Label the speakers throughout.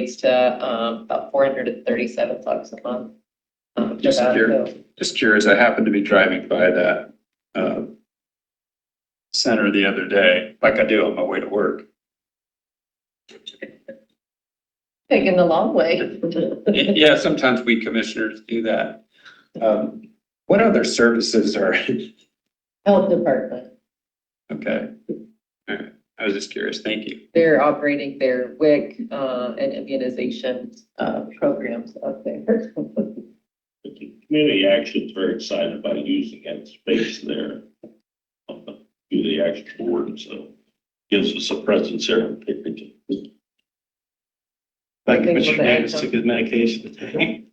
Speaker 1: It's to, um, about four hundred and thirty-seven bucks a month. um, for
Speaker 2: Just
Speaker 1: that,
Speaker 2: here.
Speaker 1: so-
Speaker 2: Just curious, I happened to be driving by that, uh, center the other day, like I do on my way to work.
Speaker 1: Taking the long way.
Speaker 2: Yeah, sometimes we commissioners do that. Um, what other services are,
Speaker 1: Health department,
Speaker 2: okay. All right. I was just curious. Thank you.
Speaker 1: they're operating their WIC, uh, and immunization, uh, programs up there.
Speaker 3: But the community action's very excited about using that space there. um, to Do the action board, and so gives us a presence there in Pickerington.
Speaker 1: Thank you, Commissioner Davis took
Speaker 4: his medication today.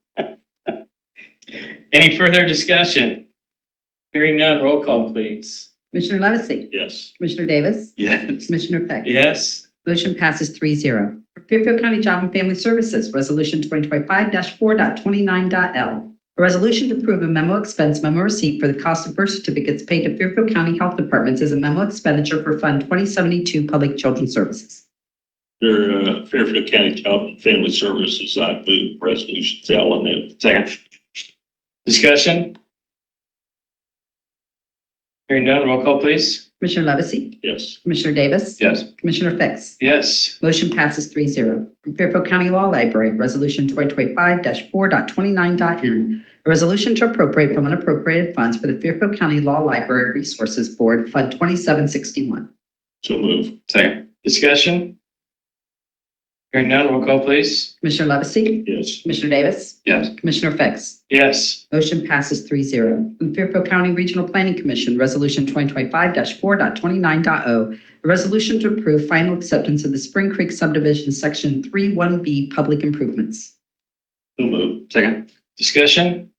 Speaker 4: Any further discussion? Hearing none, roll call, please.
Speaker 5: Commissioner Levesey?
Speaker 3: Yes.
Speaker 5: Commissioner Davis?
Speaker 4: Yes.
Speaker 5: Commissioner Peck?
Speaker 4: Yes.
Speaker 5: Motion passes three zero. For Fairfield County Job and Family Services, Resolution 2025-4.29.l. A resolution to approve a memo expense memo receipt for the cost of birth certificates paid to Fairfield County Health Departments as a memo expenditure for Fund 2072 Public Children's Services.
Speaker 3: Under uh, Fairfield County Child and Family Services, I move resolution L and then
Speaker 4: Second. Discussion? Hearing none, roll call, please.
Speaker 5: Commissioner Levesey?
Speaker 3: yes.
Speaker 5: Commissioner Davis?
Speaker 4: Yes.
Speaker 5: Commissioner Fix?
Speaker 4: Yes.
Speaker 5: Motion passes three zero. From Fairfield County Law Library, Resolution 2025-4.29.n. A resolution to appropriate from unappropriated funds for the Fairfield County Law Library Resources Board, Fund 2761.
Speaker 3: So move,
Speaker 4: Second. Discussion? Hearing none, roll call, please.
Speaker 5: Commissioner Levesey?
Speaker 3: yes.
Speaker 5: Commissioner Davis?
Speaker 4: Yes.
Speaker 5: Commissioner Fix?
Speaker 4: Yes.
Speaker 5: Motion passes three zero. From Fairfield County Regional Planning Commission, Resolution 2025-4.29.o. A resolution to approve final acceptance of the Spring Creek subdivision, Section 31B, public improvements.
Speaker 3: So move,
Speaker 4: Second. Discussion?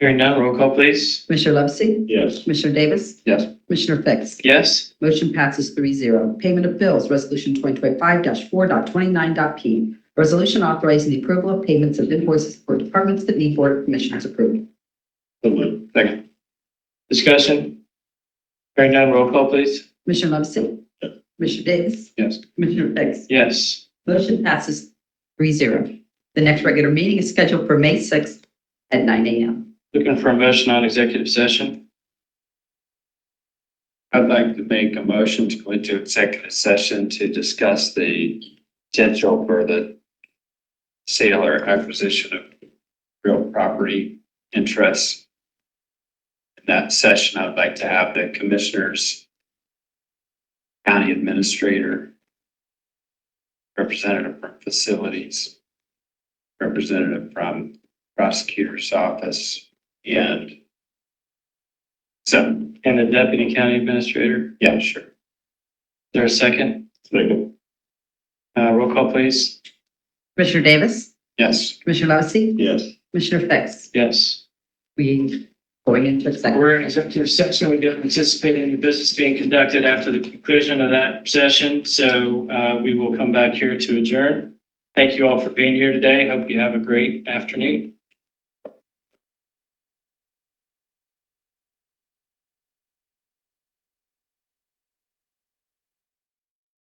Speaker 4: Hearing none, roll call, please.
Speaker 5: Commissioner Levesey?
Speaker 3: yes.
Speaker 5: Commissioner Davis?
Speaker 4: Yes.
Speaker 5: Commissioner Fix?
Speaker 4: Yes.
Speaker 5: Motion passes three zero. Payment of bills, Resolution 2025-4.29.p. Resolution authorizing the approval of payments of invoices for departments that need Board of Commissioners approval.
Speaker 3: So move,
Speaker 4: Second. Discussion? Hearing none, roll call, please.
Speaker 5: Commissioner Levesey?
Speaker 3: Yes.
Speaker 5: Commissioner Davis?
Speaker 4: Yes.
Speaker 5: Commissioner Fix?
Speaker 4: Yes.
Speaker 5: Motion passes three zero. The next regular meeting is scheduled for May 6th at nine a.m.
Speaker 4: Looking for a motion on executive session.
Speaker 2: I'd like to make a motion to go into executive session to discuss the potential for the sale or acquisition of real property interests. In that session, I'd like to have the commissioners, county administrator, representative from facilities, representative from prosecutor's office, and so,
Speaker 4: And the deputy county administrator,
Speaker 2: yeah, sure.
Speaker 4: Is there a second?
Speaker 3: second,
Speaker 4: Uh, roll call, please.
Speaker 5: Commissioner Davis?
Speaker 2: Yes.
Speaker 5: Commissioner Levesey?
Speaker 3: yes.
Speaker 5: Commissioner Fix?
Speaker 4: Yes.
Speaker 5: We going into executive.
Speaker 4: We're in executive session. We don't anticipate any business being conducted after the conclusion of that session. So, uh, we will come back here to adjourn. Thank you all for being here today. Hope you have a great afternoon.